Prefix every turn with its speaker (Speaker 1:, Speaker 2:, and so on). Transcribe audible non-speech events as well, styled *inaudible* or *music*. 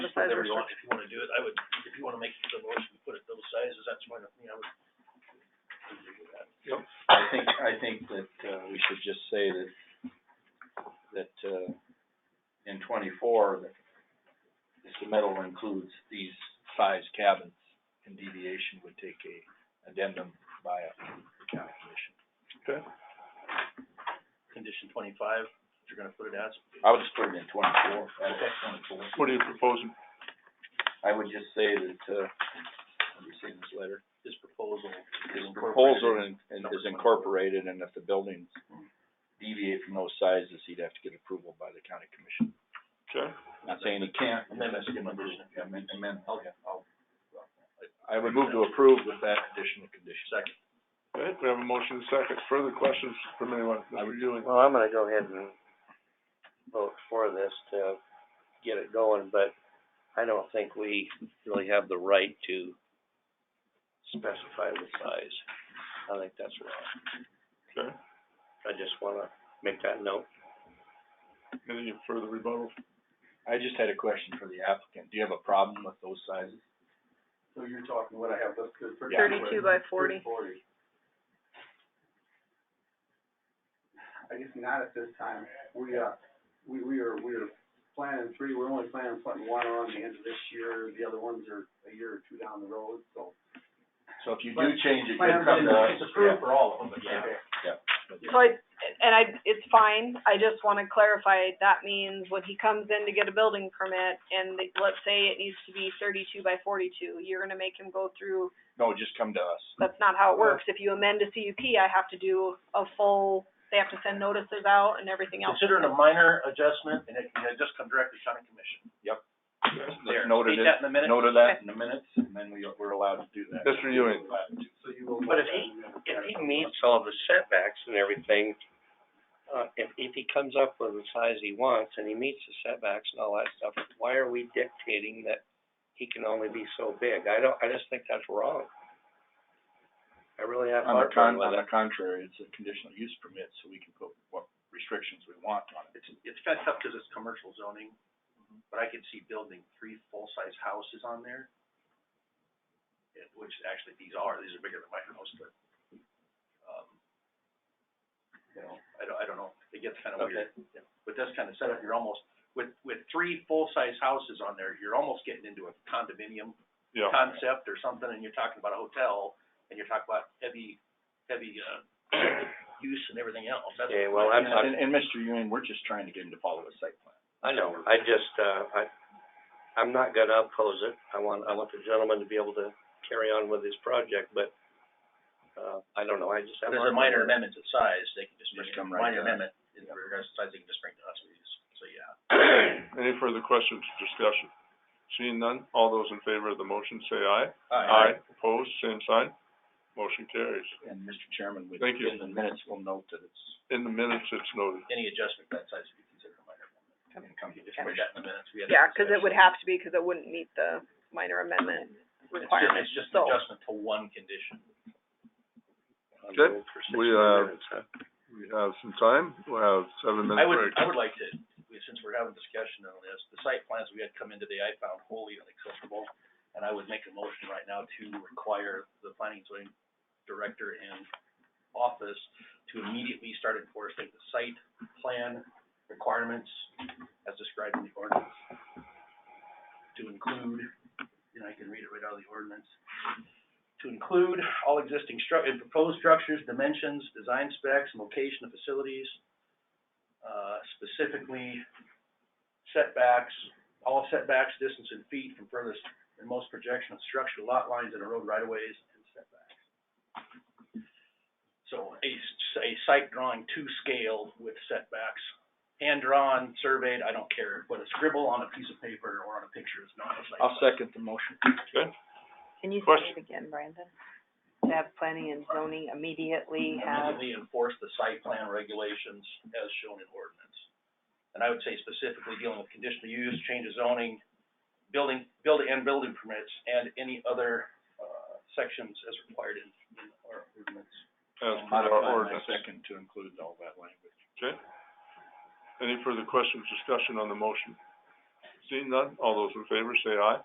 Speaker 1: Whatever
Speaker 2: size
Speaker 1: you want,
Speaker 2: restriction.
Speaker 1: if you wanna do it, I would, if you wanna make the motion, put it those sizes, that's fine with me, I would. I'd do that.
Speaker 3: I think, I think that, uh, we should just say that, that, uh, in twenty-four, that this submittal includes these size cabins, and deviation would take a addendum by a county commission.
Speaker 1: Condition twenty-five, if you're gonna put it as.
Speaker 3: I would just put it in twenty-four, add it to twenty-four.
Speaker 4: What are you proposing?
Speaker 3: I would just say that, uh, let me see this letter.
Speaker 1: This proposal.
Speaker 3: This
Speaker 1: is incorporated
Speaker 3: proposal in- in- is incorporated, and if the buildings deviate from those sizes, he'd have to get approval by the county commission.
Speaker 4: Okay,
Speaker 3: Not saying he can't.
Speaker 1: Amendment to the condition.
Speaker 3: Yeah, amend- amend-
Speaker 1: Okay.
Speaker 3: yeah, I'll- I would move to approve with that additional condition. Second.
Speaker 4: okay, we have a motion and a second. Further questions from anyone? Mr. Ewing?
Speaker 2: Well, I'm gonna go ahead and vote for this to get it going, but I don't think we really have the right to specify the size. I think that's wrong.
Speaker 4: Okay,
Speaker 2: I just wanna make that note.
Speaker 4: any further rebuttal?
Speaker 3: I just had a question for the applicant. Do you have a problem with those sizes?
Speaker 5: So you're talking what I have listed for.
Speaker 3: Yeah.
Speaker 6: Thirty-two by forty.
Speaker 5: Forty. I guess not at this time. We, uh, we, we are, we are planning three, we're only planning putting one on the end of this year. The other ones are a year or two down the road, so.
Speaker 3: So if you do
Speaker 5: But-
Speaker 3: change it,
Speaker 5: Plan
Speaker 3: you'll come to us.
Speaker 5: is
Speaker 3: Yeah.
Speaker 5: approved for all of them, but
Speaker 3: yeah.
Speaker 6: So I, and I, it's fine, I just wanna clarify, that means when he comes in to get a building permit, and they- let's say it needs to be thirty-two by forty-two, you're gonna make him go through,
Speaker 3: No, just come to us.
Speaker 6: that's not how it works. If you amend a CUP, I have to do a full, they have to send notices out and everything else.
Speaker 1: Consider it a minor adjustment, and it can just come directly to county commission.
Speaker 3: Let's note it,
Speaker 1: State that in a minute.
Speaker 3: note of that in the minutes, and then we, we're allowed to do that.
Speaker 4: Mr. Ewing?
Speaker 5: So you will.
Speaker 2: But if he, if he meets all the setbacks and everything, uh, if, if he comes up with the size he wants and he meets the setbacks and all that stuff, why are we dictating that he can only be so big? I don't, I just think that's wrong. I really have
Speaker 3: On the
Speaker 2: heartburn
Speaker 3: con-
Speaker 2: with
Speaker 3: on
Speaker 2: it.
Speaker 3: the contrary, it's a conditional use permit, so we can put what restrictions we want on it.
Speaker 1: It's, it's kinda tough 'cause it's commercial zoning, but I could see building three full-size houses on there. Yeah, which actually these are, these are bigger than my house, but, um, you know, I don't, I don't know, it gets kinda
Speaker 2: Okay.
Speaker 1: weird. Yeah. With this kinda setup, you're almost, with, with three full-size houses on there, you're almost getting into a condominium
Speaker 4: Yeah.
Speaker 1: concept or something, and you're talking about a hotel, and you're talking about heavy, heavy, uh, use and everything else. That's-
Speaker 2: Okay, well, I'm
Speaker 3: And,
Speaker 2: not,
Speaker 3: and- and Mr. Ewing, we're just trying to get him to follow a site plan.
Speaker 2: I know, I just, uh, I, I'm not gonna oppose it. I want, I want the gentleman to be able to carry on with his project, but, uh, I don't know, I just have.
Speaker 1: There's a
Speaker 2: heartburn
Speaker 1: minor
Speaker 2: with it.
Speaker 1: amendment to size, they can just,
Speaker 3: Just
Speaker 1: just
Speaker 3: come right
Speaker 1: minor
Speaker 3: to us.
Speaker 1: amendment in regards to size, they can just bring to us, we just- so, yeah.
Speaker 4: *coughs* Any further questions, or discussion? Seeing none, all those in favor of the motion say aye. Opposed, same sign. Motion carries.
Speaker 3: And Mr. Chairman, we,
Speaker 4: Thank you.
Speaker 3: in the minutes, we'll note that it's,
Speaker 4: In the minutes, it's noted.
Speaker 1: Any adjustment to that size would be considered a minor amendment.
Speaker 3: and come to
Speaker 1: If we got in the minutes, we had. a
Speaker 6: Yeah, 'cause it would
Speaker 1: discussion.
Speaker 6: have to be, 'cause it wouldn't meet the minor amendment
Speaker 1: It's ju-
Speaker 6: requirement,
Speaker 1: It's just an
Speaker 6: so.
Speaker 1: adjustment to one condition.
Speaker 2: I'm
Speaker 4: Good.
Speaker 2: moved for
Speaker 4: We,
Speaker 2: 60
Speaker 4: uh,
Speaker 2: minutes, huh?
Speaker 4: We have some time, we'll have seven
Speaker 1: I
Speaker 4: minutes
Speaker 1: would,
Speaker 4: break.
Speaker 1: I would like to, since we're having discussion on this, the site plans we had come in today, I found wholly unacceptable. And I would make a motion right now to require the planning and zoning director and office to immediately start enforcing the site plan requirements as described in the ordinance. To include, and I can read it right out of the ordinance. To include all existing stru- and proposed structures, dimensions, design specs, and location of facilities, uh, specifically setbacks, all setbacks, distance in feet from furthest and most projection of structure, lot lines, and road right of ways and setbacks. So a, s- a site drawing to scale with setbacks, hand drawn, surveyed, I don't care, but a scribble on a piece of paper or on a picture is not a site.
Speaker 3: I'll
Speaker 1: plan.
Speaker 3: second the motion.
Speaker 4: Okay,
Speaker 7: Can you
Speaker 4: Question.
Speaker 7: say it again, Brandon? To have planning and zoning immediately have,
Speaker 1: immediately enforce the site plan regulations as shown in ordinance. And I would say specifically dealing with conditional use, change of zoning, building, building, and building permits, and any other, uh, sections as required in, in our ordinance.
Speaker 4: as per
Speaker 3: Modify
Speaker 4: our
Speaker 3: my
Speaker 4: ordinance.
Speaker 3: second to include all that language.
Speaker 4: Okay. Any further questions, discussion on the motion? Seeing none, all those in favor say aye.